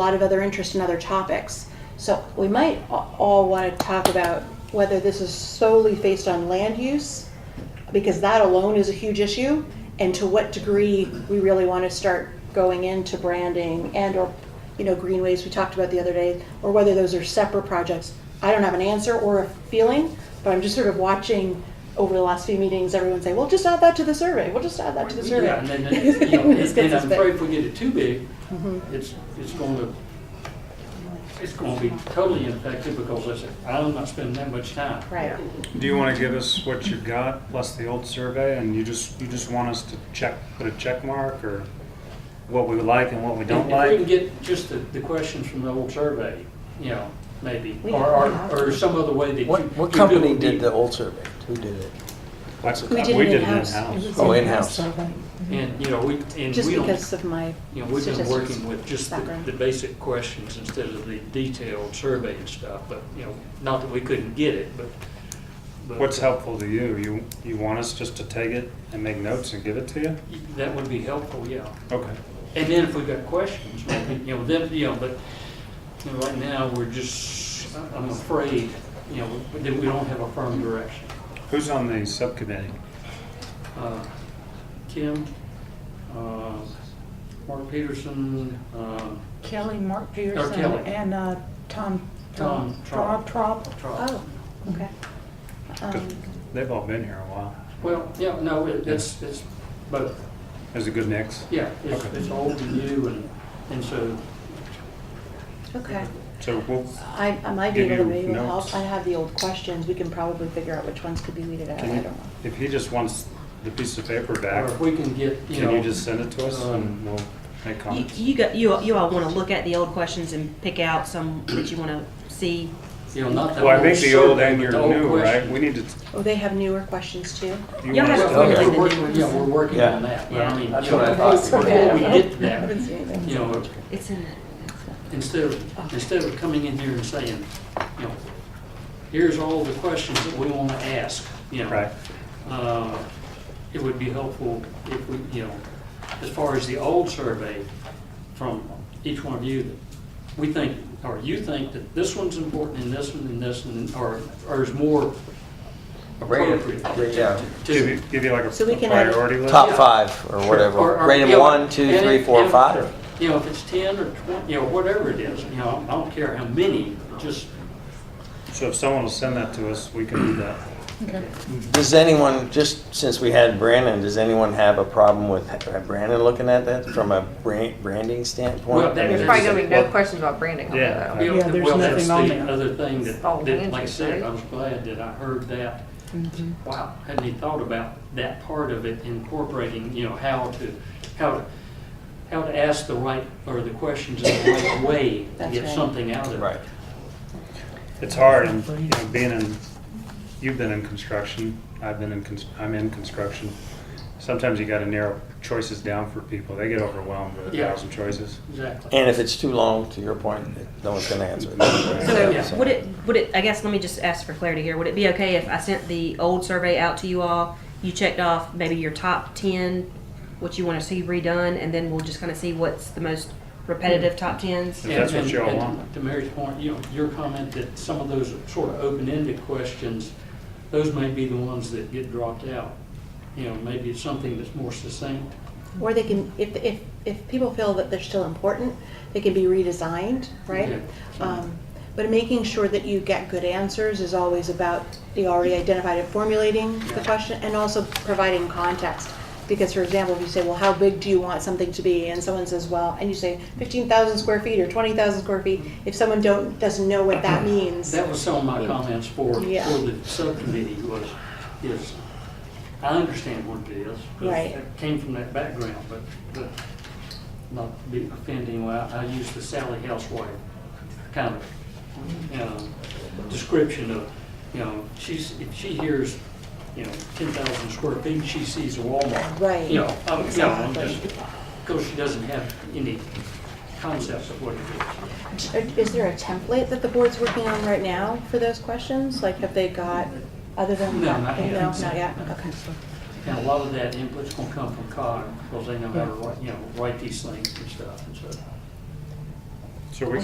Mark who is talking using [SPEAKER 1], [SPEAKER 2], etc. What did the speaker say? [SPEAKER 1] lot of other interest in other topics. So we might a- all want to talk about whether this is solely based on land use, because that alone is a huge issue, and to what degree we really want to start going into branding and or, you know, greenways we talked about the other day, or whether those are separate projects. I don't have an answer or a feeling, but I'm just sort of watching over the last few meetings, everyone say, well, just add that to the survey, we'll just add that to the survey.
[SPEAKER 2] Yeah, and then, then, you know,
[SPEAKER 1] This
[SPEAKER 2] and
[SPEAKER 1] gets
[SPEAKER 2] and
[SPEAKER 1] us
[SPEAKER 2] I'm
[SPEAKER 1] big.
[SPEAKER 2] afraid if we get it too big,
[SPEAKER 1] Mm-hmm.
[SPEAKER 2] it's, it's going to, it's going to be totally ineffective because I said, I'm not spending that much time.
[SPEAKER 1] Right.
[SPEAKER 3] Do you want to give us what you got plus the old survey, and you just you just want us to check, put a check mark, or what we like and what we
[SPEAKER 2] If-
[SPEAKER 3] don't
[SPEAKER 2] If we
[SPEAKER 3] like?
[SPEAKER 2] can get just the, the questions from the old survey, you know, maybe,
[SPEAKER 1] We-
[SPEAKER 2] or, or,
[SPEAKER 1] we have to.
[SPEAKER 2] or some other way that you.
[SPEAKER 4] What, what
[SPEAKER 2] you do
[SPEAKER 4] company
[SPEAKER 2] it
[SPEAKER 4] did the old survey? Who did it?
[SPEAKER 3] That's-
[SPEAKER 1] We did it in-house.
[SPEAKER 3] in-house.
[SPEAKER 4] Oh, in-house.
[SPEAKER 2] And, you know, we, and
[SPEAKER 1] Just
[SPEAKER 2] we
[SPEAKER 1] because of
[SPEAKER 2] don't,
[SPEAKER 1] my
[SPEAKER 2] you know, we've been
[SPEAKER 1] statistics
[SPEAKER 2] working with just the,
[SPEAKER 1] background.
[SPEAKER 2] the basic questions instead of the detailed survey and stuff, but, you know, not that we couldn't get it, but. but-
[SPEAKER 3] What's helpful to you? You you want us just to take it and make notes and give it to you?
[SPEAKER 2] That would be helpful, yeah.
[SPEAKER 3] Okay.
[SPEAKER 2] And then if we've got questions, maybe, you know, then, you know, but, you know, right now, we're just, I'm afraid, you know, that we don't have a firm direction.
[SPEAKER 3] Who's on the subcommittee?
[SPEAKER 2] Uh, Kim, uh, Mark Peterson, uh,
[SPEAKER 5] Kelly, Mark Peterson,
[SPEAKER 2] Kelly.
[SPEAKER 5] and uh, Tom
[SPEAKER 2] Tom
[SPEAKER 5] Trop. Trop.
[SPEAKER 2] Trot.
[SPEAKER 1] Oh, okay.
[SPEAKER 3] 'Cause
[SPEAKER 1] Um,
[SPEAKER 3] They've all been here a while.
[SPEAKER 2] Well, yeah, no, it- it's, it's, but,
[SPEAKER 3] Is it good mix?
[SPEAKER 2] yeah, it's,
[SPEAKER 3] Okay.
[SPEAKER 2] it's old and new, and, and so,
[SPEAKER 1] Okay.
[SPEAKER 3] So we'll,
[SPEAKER 1] I, I might be
[SPEAKER 3] Give
[SPEAKER 1] able to
[SPEAKER 3] you
[SPEAKER 1] maybe help.
[SPEAKER 3] notes.
[SPEAKER 1] I have the old questions. We can probably figure out which ones could be weeded out. I
[SPEAKER 3] can
[SPEAKER 1] don't
[SPEAKER 3] you,
[SPEAKER 1] know.
[SPEAKER 3] if he just wants the piece of paper
[SPEAKER 2] or
[SPEAKER 3] back,
[SPEAKER 2] if we can get, you know. um,
[SPEAKER 3] can you just send it to us and we'll make
[SPEAKER 6] You,
[SPEAKER 3] comments?
[SPEAKER 6] you got, you, you all want to look at the old questions and pick out some that you want to see.
[SPEAKER 2] You know, not the
[SPEAKER 3] Well, I
[SPEAKER 2] old
[SPEAKER 3] think the old
[SPEAKER 2] survey,
[SPEAKER 3] and
[SPEAKER 2] but
[SPEAKER 3] your
[SPEAKER 2] the old
[SPEAKER 3] new, right?
[SPEAKER 2] question.
[SPEAKER 3] We need to.
[SPEAKER 1] Oh, they have newer questions too?
[SPEAKER 3] you
[SPEAKER 6] Y'all
[SPEAKER 3] want us
[SPEAKER 6] have
[SPEAKER 3] to-
[SPEAKER 4] to
[SPEAKER 2] Well,
[SPEAKER 4] Okay.
[SPEAKER 2] we're working, yeah, we're working on that, but I mean,
[SPEAKER 4] That's
[SPEAKER 2] you know,
[SPEAKER 4] what I thought.
[SPEAKER 2] before we get to that,
[SPEAKER 1] seen anything.
[SPEAKER 2] you know,
[SPEAKER 6] It's in it.
[SPEAKER 2] instead of, instead of coming in here and saying, you know, here's all the questions that we want to ask, you know.
[SPEAKER 3] Right.
[SPEAKER 2] uh, It would be helpful if we, you know, as far as the old survey from each one of you, that we think, or you think that this one's important and this one and this one, or, or is more
[SPEAKER 4] Rate it-
[SPEAKER 2] appropriate.
[SPEAKER 4] rate- yeah.
[SPEAKER 2] to-
[SPEAKER 3] Give you, give you like a
[SPEAKER 1] So we can uh, add-
[SPEAKER 3] priority list?
[SPEAKER 4] Top five or
[SPEAKER 2] Or-
[SPEAKER 4] whatever.
[SPEAKER 2] or-
[SPEAKER 4] Rate
[SPEAKER 2] yeah,
[SPEAKER 4] them one, two,
[SPEAKER 2] and
[SPEAKER 4] three,
[SPEAKER 2] if-
[SPEAKER 4] four,
[SPEAKER 2] if-
[SPEAKER 4] five.
[SPEAKER 2] You know, if it's ten or twenty, you know, whatever it is, you know, I don't care how many, just,
[SPEAKER 3] So if someone will send that to us, we can do that.
[SPEAKER 4] Does anyone, just since we had Brandon, does anyone have a problem with uh, Brandon looking at that from a bran- branding standpoint?
[SPEAKER 2] Well, that- There's
[SPEAKER 4] I mean,
[SPEAKER 7] There's
[SPEAKER 4] is
[SPEAKER 7] probably
[SPEAKER 4] it-
[SPEAKER 7] gonna be no
[SPEAKER 4] well,
[SPEAKER 7] questions about branding on
[SPEAKER 3] Yeah.
[SPEAKER 7] that.
[SPEAKER 2] you know,
[SPEAKER 5] Yeah, there's
[SPEAKER 2] well, that's
[SPEAKER 5] nothing on
[SPEAKER 2] the
[SPEAKER 5] there.
[SPEAKER 2] other thing that,
[SPEAKER 7] It's all
[SPEAKER 2] that, like I said,
[SPEAKER 7] handshake,
[SPEAKER 2] I
[SPEAKER 7] right?
[SPEAKER 2] was glad that I heard that. Wow, hadn't even thought about that part of it incorporating, you know, how to, how to, how to ask the right, or the questions in the right way to
[SPEAKER 1] That's
[SPEAKER 2] get
[SPEAKER 1] right.
[SPEAKER 2] something out of it.
[SPEAKER 4] Right.
[SPEAKER 3] It's hard, and, you know, being in, you've been in construction, I've been in, cons- I'm in construction. Sometimes you gotta narrow choices down for people. They get overwhelmed with a
[SPEAKER 2] Yeah.
[SPEAKER 3] thousand choices.
[SPEAKER 2] Exactly.
[SPEAKER 4] And if it's too long, to your point, no one's gonna answer it.
[SPEAKER 2] Yeah.
[SPEAKER 6] So would it, would it, I guess, let me just ask for clarity here. Would it be okay if I sent the old survey out to you all? You checked off maybe your top ten, what you want to see redone, and then we'll just kind of see what's the most repetitive top tens?
[SPEAKER 3] If that's what
[SPEAKER 2] And-
[SPEAKER 3] y'all
[SPEAKER 2] and-
[SPEAKER 3] want.
[SPEAKER 2] and To Mary's point, you know, your comment that some of those sort of open-ended questions, those may be the ones that get dropped out. You know, maybe it's something that's more succinct.
[SPEAKER 1] Or they can, if, if, if people feel that they're still important, they can be redesigned, right?
[SPEAKER 2] Yeah.
[SPEAKER 1] Um, But making sure that you get good answers is always about the already identified and formulating the
[SPEAKER 2] Yeah.
[SPEAKER 1] question and also providing context. Because for example, if you say, well, how big do you want something to be? And someone says, well, and you say fifteen thousand square feet or twenty thousand square feet,
[SPEAKER 2] Mm-hmm.
[SPEAKER 1] if someone don't, doesn't know what that means.
[SPEAKER 2] That was some of my comments for, for
[SPEAKER 1] Yeah.
[SPEAKER 2] the subcommittee was, is, I understand what it is. 'cause
[SPEAKER 1] Right.
[SPEAKER 2] It came from that background, but, but not to be offending, well, I use the Sally Housewife kind of, you know, description of, you know, she's, if she hears, you know, ten thousand square feet, she sees a Walmart.
[SPEAKER 1] Right,
[SPEAKER 2] You know, um, you know, I'm
[SPEAKER 1] exactly.
[SPEAKER 2] just, because she doesn't have any concepts of what it is.
[SPEAKER 1] Is there a template that the board's working on right now for those questions? Like, have they got, other than?
[SPEAKER 2] No, not yet.
[SPEAKER 1] No, not yet, okay.
[SPEAKER 2] And a lot of that input's gonna come from COG, because they know how to write, you know, write these things and stuff, and so.